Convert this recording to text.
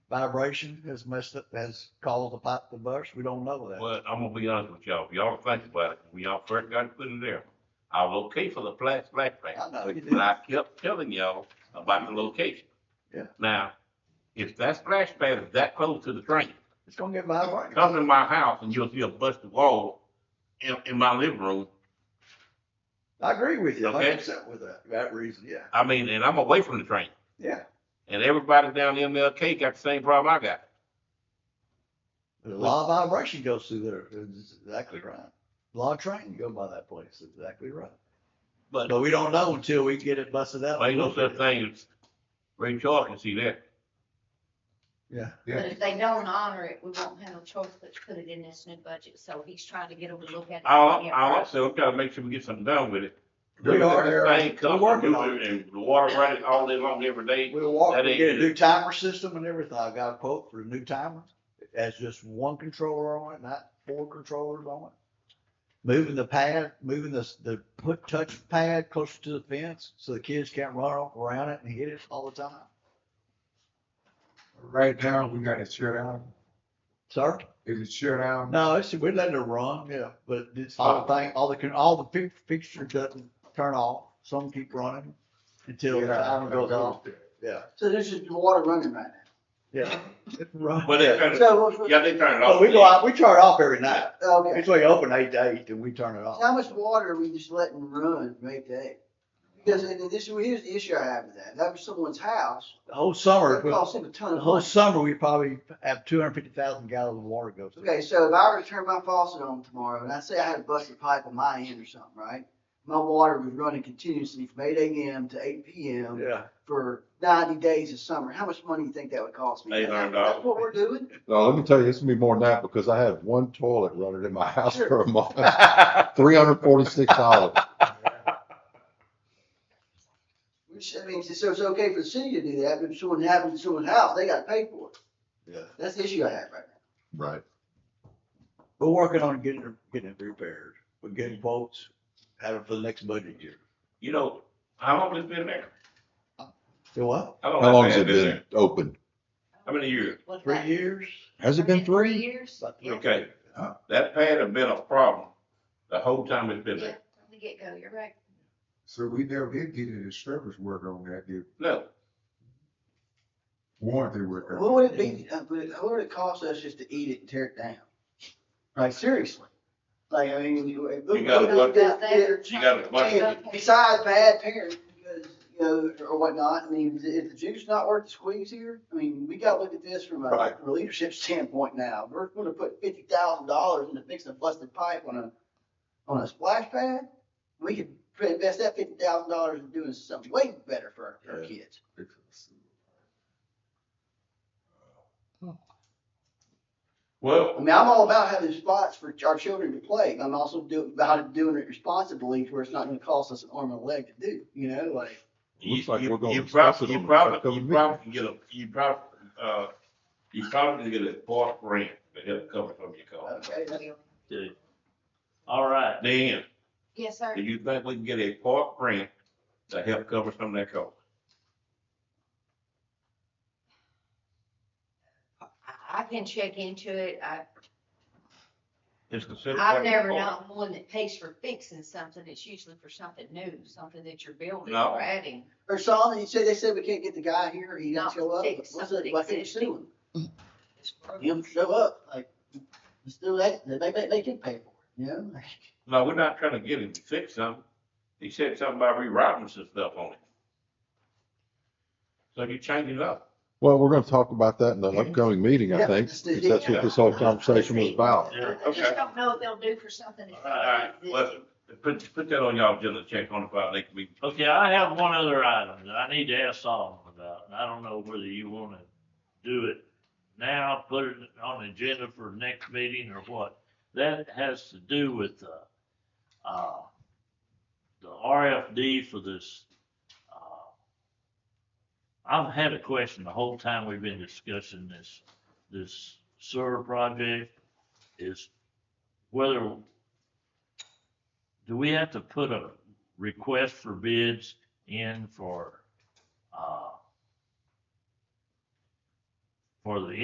vibration has messed up, has caused the pipe to burst. We don't know that. Well, I'm gonna be honest with y'all, If y'all think about it, when y'all first got it put in there, I was okay for the flash, flash, flash. I know you did. But I kept telling y'all about the location. Yeah. Now, if that splash pad is that close to the train, It's gonna get vibrating. come in my house and you'll see a busted wall in, in my living room. I agree with you, Okay. hundred percent with that, that reason, yeah, I mean, and I'm away from the train. yeah. And everybody down in MLK got the same problem I got. A lot of vibration goes through there, it's exactly right. A lot of train go by that place, exactly right. But But we don't know until we get it busted out. ain't no such thing as Ray Charles can see that. Yeah, But if they don't honor it, we won't have a choice but to put it in this new budget, so he's trying to get them to look at. it. I'll, I'll also, I'm trying to make sure we get something done with it. We are, This Eric. Thing comes, We're working on it. and the water running all day long every day. we'll walk, That we ain't get a good. new timer system and everything, I got a quote for a new timer. It has just one controller on it, not four controllers on it. Moving the pad, moving the, the put touch pad closer to the fence, so the kids can't run off around it and hit it all the time. Right now, we got it shut down. Sir? Is it shut down? No, it's, we're letting it run, yeah, but it's all the thing, all the, con- all the fi- fixtures doesn't turn off, some keep running until the timer goes off, yeah, So this is the water running right now. yeah. It's run- Well, they yeah. turn it, So what's- yeah, they turn it off. But we go out, we turn it off every night, Okay, it's like open eight to eight, and we turn it So how off. much water are we just letting run make day? Because and this, here's the issue I have with that. That was someone's house. The whole summer, It the cost them a ton of whole money. summer, we probably have two hundred fifty thousand gallons of water goes through. Okay, so if I were to turn my faucet on tomorrow and I say I had a busted pipe on my end or something, right? My water was running continuously from eight AM to eight PM Yeah, for ninety days of summer. How much money do you think that would cost me? $800. That's what we're doing? No, let me tell you, it's gonna be more than that because I had one toilet running in my house Sure. for a month. Three hundred forty-six dollars. Which, I mean, so it's okay for the city to do that, but if someone happens to someone's house, they gotta pay for it. Yeah. That's the issue I have right now. Right. we're working on getting, it- getting it repaired, we're getting quotes, have it for the next budget year. You know, how long has it been there? So what, How long has it been open? How many years? What's three that? years? Has it been Three three? years? About three. Yeah. Okay, that pad has been a problem the whole time it's been Yeah, there. from the get-go, you're right. So we never did get any service work on that, the No, warranty work. What would it be, uh, would it- what would it cost us just to eat it and tear it down? Like, seriously? Like, I mean, you. it- You gotta it- look- it- it- you got a bunch of, it- Besides bad parents, because, you know, or whatnot, I mean, is- is the juice not worth the squeeze here? I mean, we gotta look at this from a Right. from a leadership standpoint now. We're gonna put fifty thousand dollars into fixing a busted pipe on a, on a splash pad? We could invest that fifty thousand dollars in doing something way better for our- our Yeah. kids. I well, mean, I'm all about having spots for our children to play. I'm also do, about doing it responsibly to where it's not gonna cost us an arm and a leg to do, you know, like. you, Looks like we're you gonna you discuss probably, you it on the probably, upcoming you probably can get a, you probably, uh, you probably can get a park grant to help cover some of your costs. okay, that's- All right, Dan, Yes, sir. do you think we can get a park grant to help cover some of that cost? I- I can check into it. I, It's considered. I've part of the never park. known one that pays for fixing something. It's usually for something new, something that you're building No. or adding. Or Solomon, you said, they said we can't get the guy here, he didn't Not show up. fix What's something it, why can't you existing. sue him? He didn't show up, like, let's do that, they, they, they can pay for it, you know? like- No, we're not trying to get him to fix something. He said something about rewriting some stuff on it. So you change it up. Well, we're gonna talk about that in the upcoming meeting, I Yeah, think, it's the- because that's what this whole conversation was about. Yeah, I just okay. don't know if they'll do for something. that's All right, existing. listen, put, put that on y'all agenda, check on the file, they can be, okay, I have one other item that I need to ask Solomon about, and I don't know whether you wanna do it now, put it on the agenda for next meeting or what. That has to do with, uh, uh, the RFD for this, uh, I've had a question the whole time we've been discussing this, this sewer project, is whether, do we have to put a request for bids in for, uh, for the